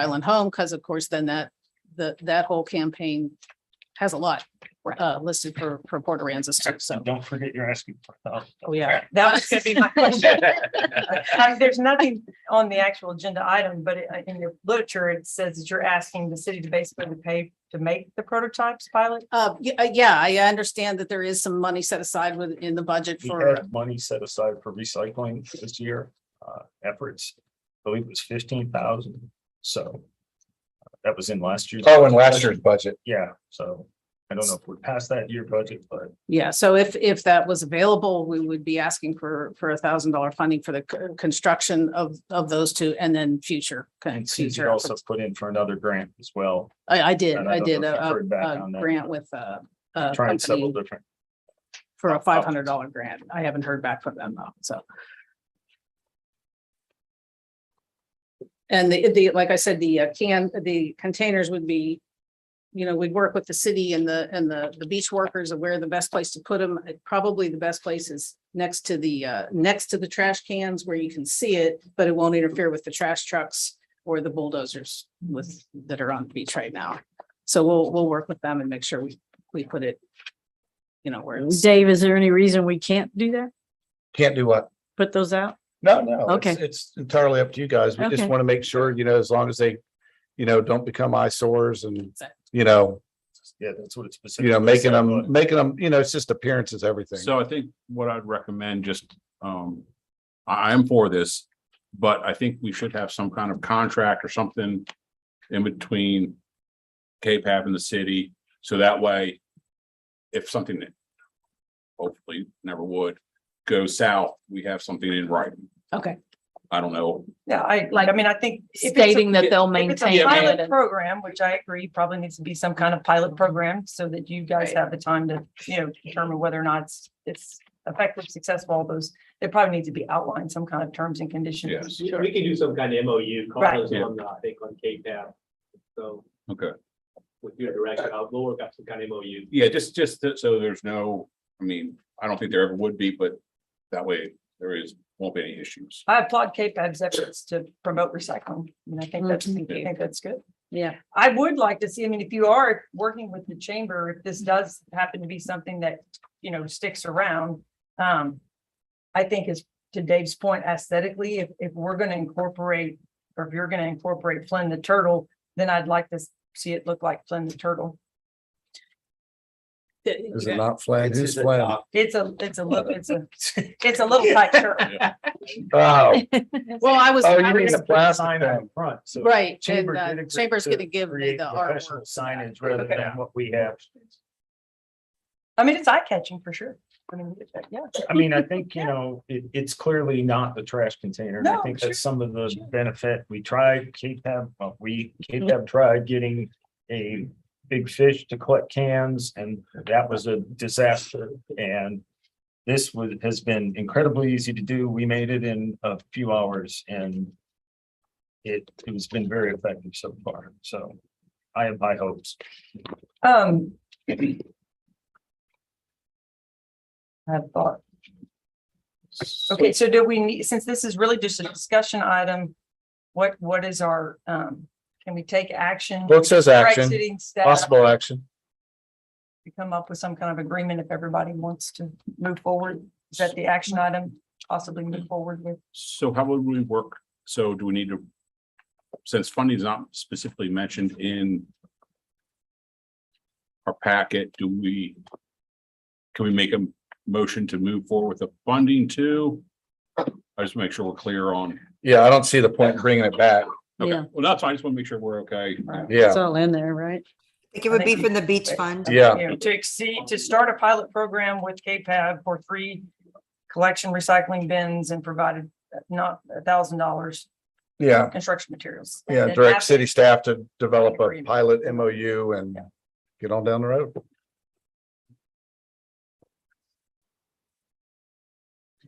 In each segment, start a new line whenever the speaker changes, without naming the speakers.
Island Home, because of course, then that, the, that whole campaign has a lot uh, listed for, for Port Aransas too, so.
And Don't forget you're asking for help.
Oh, yeah, that was gonna be my question. Uh, There's nothing on the actual agenda item, but it- in your literature, it says that you're asking the city to basically pay to make the prototypes pilot.
Uh, yeah, uh, yeah, I understand that there is some money set aside within the budget
We
for,
had money set aside for recycling this year, uh, efforts. I believe it was fifteen thousand, so. uh, That was in last year's.
Oh, and last year's budget.
Yeah, so I don't know if we're past that year budget, but
yeah, so if, if that was available, we would be asking for, for a thousand dollar funding for the c- construction of, of those two and then future.
and Susie
future
also
efforts.
put in for another grant as well.
I, I did,
and
I
don't
did
know if you've
a,
heard back
a
on that.
grant with, uh, a
Trying several
company
different,
for a five hundred dollar grant. I haven't heard back from them though, so. And the, the, like I said, the uh, can, the containers would be, you know, we'd work with the city and the, and the, the beach workers of where the best place to put them. Probably the best place is next to the, uh, next to the trash cans where you can see it, but it won't interfere with the trash trucks or the bulldozers with, that are on the beach right now. So we'll, we'll work with them and make sure we, we put it, you know, where it's.
Dave, is there any reason we can't do that?
Can't do what?
Put those out?
No, no. it's-
Okay.
It's entirely up to you guys. We just
Okay.
want to make sure, you know, as long as they, you know, don't become eyesores and,
Exactly.
you know,
yeah, that's what it's.
you know, making them, making them, you know, it's just appearances, everything.
So I think what I'd recommend just, um, I, I'm for this, but I think we should have some kind of contract or something in between KPAP and the city, so that way if something that hopefully never would go south, we have something in writing.
Okay.
I don't know.
Yeah, I, like, I mean, I think. if it's a-
Stating that they'll
If it's
maintain.
a
Yeah, man.
pilot
it.
program, which I agree, probably needs to be some kind of pilot program so that you guys
Right.
have the time to, you know, determine whether or not it's, it's effective, successful, all those. There probably need to be outlined some kind of terms and conditions.
Yes.
We we could do some kind of MOU, call
Right.
those
Yeah.
on, I think, on KTAB. So
Okay.
with your direction, I'll we'll work out some kind of MOU.
Yeah, just, just that- so there's no, I mean, I don't think there ever would be, but that way there is, won't be any issues.
I applaud KPAB's efforts to promote recycling, and I think that's, I think that's good.
Yeah.
I would like to see, I mean, if you are working with the chamber, if this does happen to be something that, you know, sticks around, um, I think is to Dave's point aesthetically, if, if we're gonna incorporate, or if you're gonna incorporate Flynn the Turtle, then I'd like to see it look like Flynn the Turtle.
Is it not flag? Who's
It's-
flag?
It's a, it's a, little, it's a, it's a little tight shirt.
Oh,
Well, I was,
oh,
I
you mean
was-
the plastic
Sign
thing.
out front, so.
right, and
Chamber did
uh,
agree
Chamber's
to
gonna give me
create
the
professional
artwork.
Signage rather than what we have.
I mean, it's eye catching for sure. I mean, yeah.
I mean, I think, you know, it, it's clearly not the trash container. and I
No,
think
sure,
that's some of the
sure. Mm-hmm.
benefit. We tried, K-Tab, well, we, K-Tab tried getting a big fish to collect cans and that was a disaster. And this was, has been incredibly easy to do. We made it in a few hours and it, it's been very effective so far. So I have high hopes.
Um. I have thought. Okay, so do we need, since this is really just a discussion item, what, what is our, um, can we take action?
Well, it says
Direct
action,
Sitting staff
possible action.
to come up with some kind of agreement if everybody wants to move forward. Is that the action item possibly move forward with?
So how would we work? So do we need to? Since funding is not specifically mentioned in. Our packet, do we? Can we make a motion to move forward with the funding too? I just make sure we're clear on.
Yeah, I don't see the point in bringing it back.
Okay,
Yeah.
Well, that's, I just want to make sure we're okay.
Yeah,
It's all in there, right?
Like it would be
think-
from the beach fund.
yeah.
You know, to exceed, to start a pilot program with KPAB for three collection recycling bins and provided not a thousand dollars
Yeah,
construction materials.
yeah.
And
Direct
after-
city staff to develop a
Agreement.
pilot MOU and get on down the road.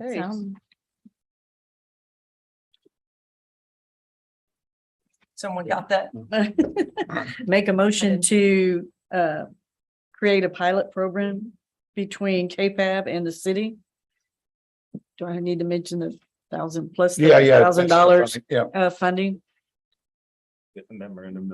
Okay.
Sound-
Someone got that?
Make a motion to uh create a pilot program between KPAB and the city. Do I need to mention the thousand uh, plus? the
Yeah, yeah.
Thousand dollars
Yeah,
uh funding
get the memorandum